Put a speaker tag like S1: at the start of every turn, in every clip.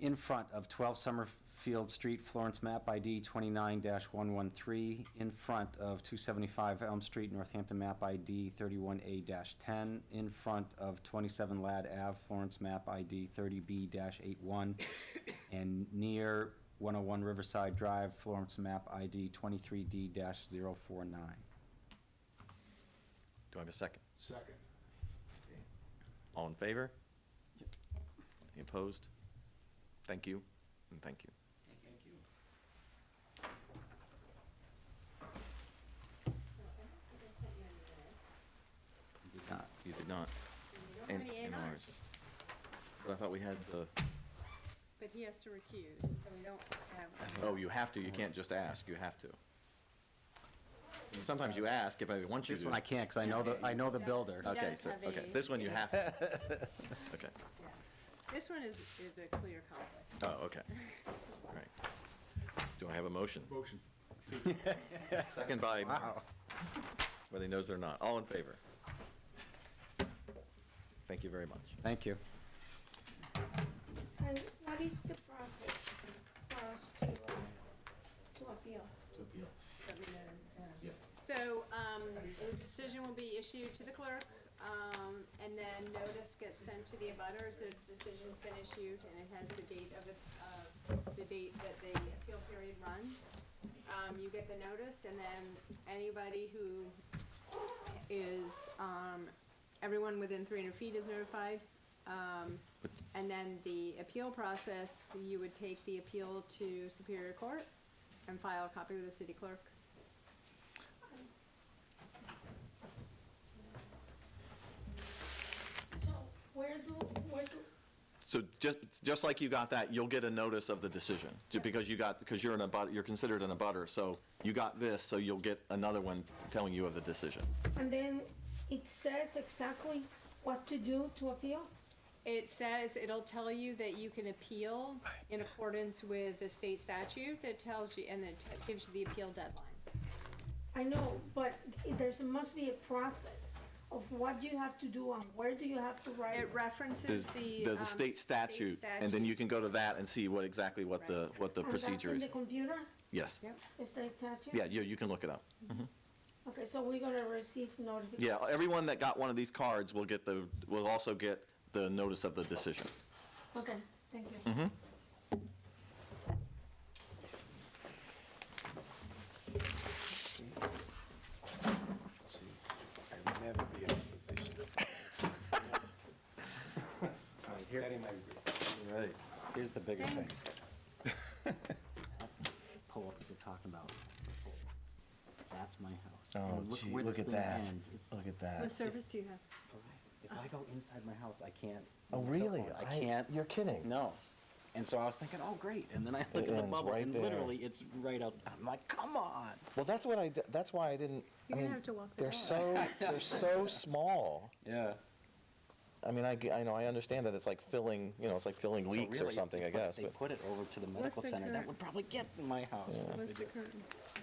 S1: in front of 12 Summerfield Street, Florence, map ID 29-113, in front of 275 Elm Street, Northampton, map ID 31A-10, in front of 27 Lad Ave, Florence, map ID 30B-81, and near 101 Riverside Drive, Florence, map ID 23D-049.
S2: Do I have a second?
S3: Second.
S2: All in favor? Any opposed? Thank you, and thank you.
S1: Did not.
S2: You did not. And and ours. But I thought we had the,
S4: But he has to recuse, so we don't have.
S2: oh, you have to, you can't just ask, you have to. Sometimes you ask if I want you to.
S1: This one I can't, because I know the, I know the builder.
S4: Yeah.
S2: Okay,
S4: does
S2: so,
S4: have
S2: okay,
S4: a-
S2: this one you have to. Okay,
S4: Yeah. This one is, is a clear conflict.
S2: oh, okay. All right. Do I have a motion?
S3: Motion.
S2: Second by Mark. Whether he knows it or not. All in favor? Thank you very much.
S1: Thank you.
S5: And what is the process for us to, uh, to appeal?
S4: Let me know, yeah. So, um, the decision will be issued to the clerk, um, and then notice gets sent to the abutters. The decision's been issued, and it has the date of, the- of the date that the appeal period runs. Um, you get the notice, and then anybody who is, um, everyone within three hundred feet is notified. Um, and then the appeal process, you would take the appeal to Superior Court and file a copy with the city clerk.
S5: So where do, where do,
S2: So just, just like you got that, you'll get a notice of the decision, ju- because you got, because you're in a but, you're considered an abutter, so you got this, so you'll get another one telling you of the decision.
S5: and then it says exactly what to do to appeal?
S4: It says, it'll tell you that you can appeal in accordance with the state statute that tells you, and that t- gives you the appeal deadline.
S5: I know, but there's, must be a process of what you have to do and where do you have to write.
S4: It references
S2: There's,
S4: the.
S2: there's a
S4: um,
S2: state statute, and then you can go to that and see what, exactly what the, what the
S5: And that's
S2: procedure
S5: in
S2: is.
S5: the computer,
S2: Yes.
S4: Oh, Yep.
S5: the state statute?
S2: Yeah, you, you can look it up.
S5: Okay, so we're gonna receive notification.
S2: Yeah, everyone that got one of these cards will get the, will also get the notice of the decision.
S5: Okay, thank you.
S3: I'll never be in a position. I was betting my
S1: Right. Here's the bigger thing.
S4: Thanks.
S1: Pull up what they're talking about. That's my house.
S6: Oh,
S1: And
S6: gee,
S1: where
S6: look
S1: this
S6: at
S1: thing
S6: that.
S1: ends. It's
S6: Look at
S4: What
S6: that.
S4: service do you have?
S1: Verizon. If I go inside my house, I can't.
S6: Oh,
S1: use my cell
S6: really?
S1: phone. I
S6: I-
S1: can't.
S6: you're kidding.
S1: No. And so I was thinking, oh, great. And then I look at the
S6: ends
S1: bubble
S6: right
S1: and
S6: there.
S1: literally it's right out. I'm like, come on.
S6: Well, that's what I, d- that's why I didn't, I
S4: You're gonna
S6: mean,
S4: have to walk the
S6: they're
S4: dog.
S6: so, they're so small.
S1: Yeah.
S6: I mean, I, g- I know, I understand that it's like filling, you know, it's like filling leaks or something, I guess,
S1: If they
S6: but,
S1: put it over to the medical
S4: the
S1: center, that
S4: current-
S1: would probably get to my house.
S4: What's the current?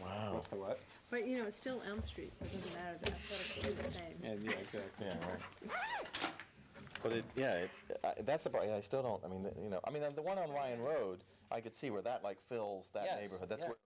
S6: wow.
S1: What's the what?
S4: But, you know, it's still Elm Street, so it doesn't matter, the aesthetics are the same.
S1: Yeah, yeah, exactly.
S6: Yeah, right. But it, yeah, it, I, that's the part, I still don't, I mean, you know, I mean, the one on Ryan Road, I could see where that like fills that
S1: Yes,
S6: neighborhood. That's
S1: yeah.
S6: where